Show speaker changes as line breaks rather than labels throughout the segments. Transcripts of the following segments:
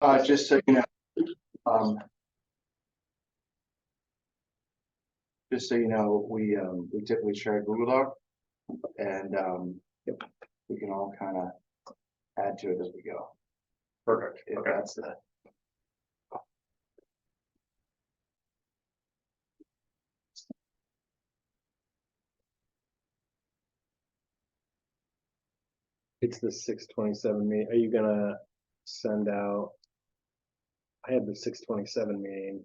Uh, just so you know, um. Just so you know, we, um, we typically share Google Doc and, um, we can all kind of add to it as we go. Perfect. If
Okay.
that's the.
It's the six twenty-seven meeting. Are you gonna send out? I had the six twenty-seven meeting.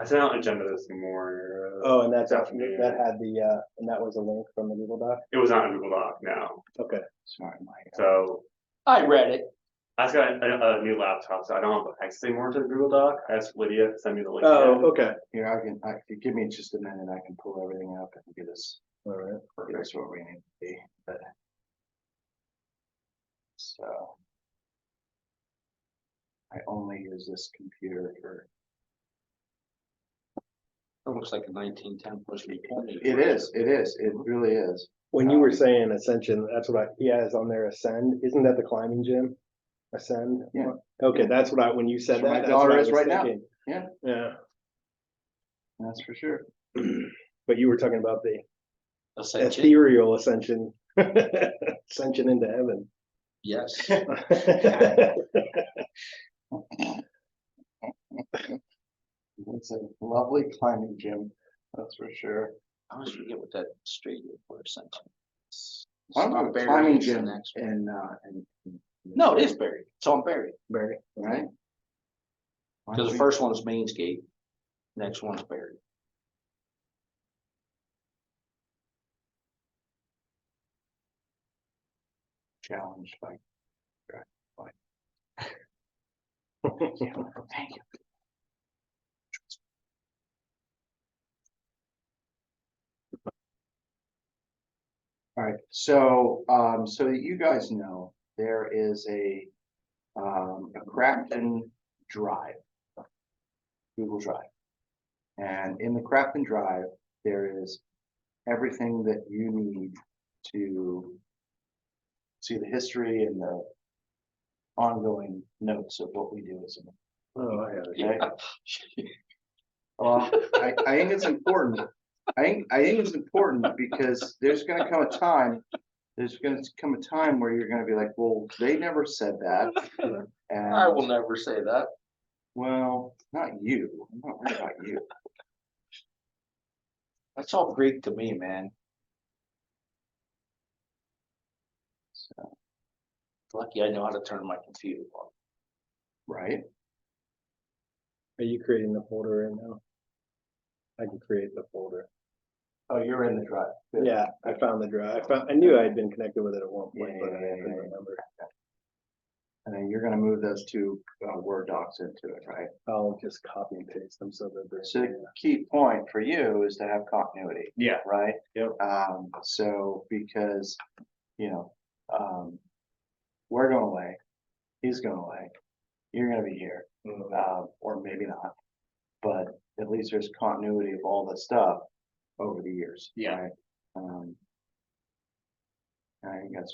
I sent out an agenda this morning.
Oh, and that's, that
Definitely.
had the, uh, and that was a link from the Google Doc?
It was not in Google Doc, no.
Okay.
Sorry, Mike.
So
I read it.
I just got a, a new laptop, so I don't have access anymore to the Google Doc. I asked Lydia to send me the link.
Oh, okay.
Here, I can, I, if you give me just a minute, I can pull everything up and get us,
All right.
get us where we need to be, but. So. I only use this computer for,
It looks like a nineteen ten plus me twenty.
it is, it is, it really is.
When you were saying Ascension, that's what I, he has on there, Ascend. Isn't that the climbing gym? Ascend?
Yeah.
Okay, that's what I, when you said
That's where my
that. that's what
daughter
I
is
was
right now.
thinking.
Yeah.
Yeah,
That's for sure.
but you were talking about the
Ascension,
ethereal ascension. Ascension into heaven.
yes.
It's a lovely climbing gym, that's for sure.
I always forget what that street is for Ascension.
Why don't we
It's not
have a
Berry,
climbing
it's the
gym
next one.
and, uh, and.
No, it is buried. It's on Berry.
Barry.
Right? Why don't
Because the
we-
first one's Mainscape, next one's Berry.
Challenge by. right, by- Thank you. All right, so, um, so that you guys know, there is a, um, a Crafton Drive. Google Drive. And in the Crafton Drive, there is everything that you need to see the history and the ongoing notes of what we do as a
Oh, I have it.
Okay. Well, I, I think it's important. I think, I think it's important because there's gonna come a time, there's gonna come a time where you're gonna be like, well, they never said that.
I will
And,
never say that.
well, not you, I'm not worried about you.
That's all Greek to me, man.
So,
Lucky I know how to turn my computer on.
right?
Are you creating the folder right now? I can create the folder.
Oh, you're in the drive. Good.
Yeah, I found the drive. I found, I knew I had been connected with it at one point,
Yeah,
but I
yeah,
couldn't
yeah.
remember.
And then you're gonna move those two uh, Word docs into it, right?
I'll just copy and paste them so that
So
they're.
the key point for you is to have continuity.
Yeah.
Right?
Yep.
Um, so because, you know, um, we're going away, he's going away, you're gonna be here,
Mm.
um, or maybe not. But at least there's continuity of all the stuff over the years.
Yeah.
right? Um. I think that's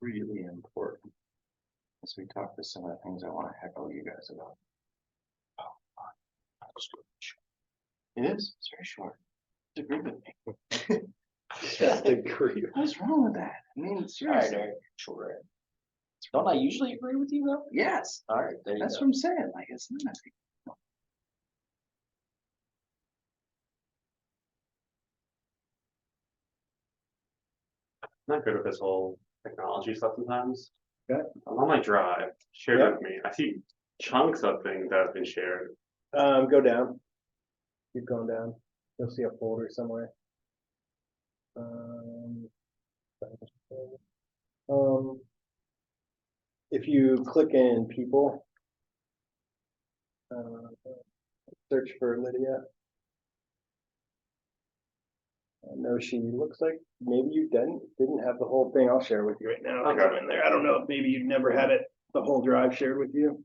really important. As we talk to some of the things I wanna heckle you guys about. It is, it's very short. Agree with me.
Just agree.
What's wrong with that? I mean,
Alright,
seriously,
Eric, sure. Don't I usually agree with you though?
yes,
Alright, there you go.
that's what I'm saying, like, it's not.
I'm not good with this whole technology stuff sometimes.
Okay.
I'm on my drive, share
Yeah.
it with me. I see chunks of things that have been shared.
Um, go down. Keep going down. You'll see a folder somewhere. Um. Um. If you click in people. Uh, search for Lydia. I know she looks like maybe you didn't, didn't have the whole thing. I'll share with you right now. I think I'm in there. I don't know if maybe you've never had it, the whole drive shared with you.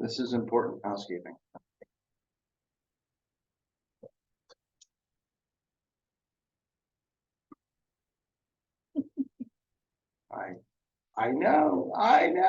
This is important housekeeping. I, I know, I know.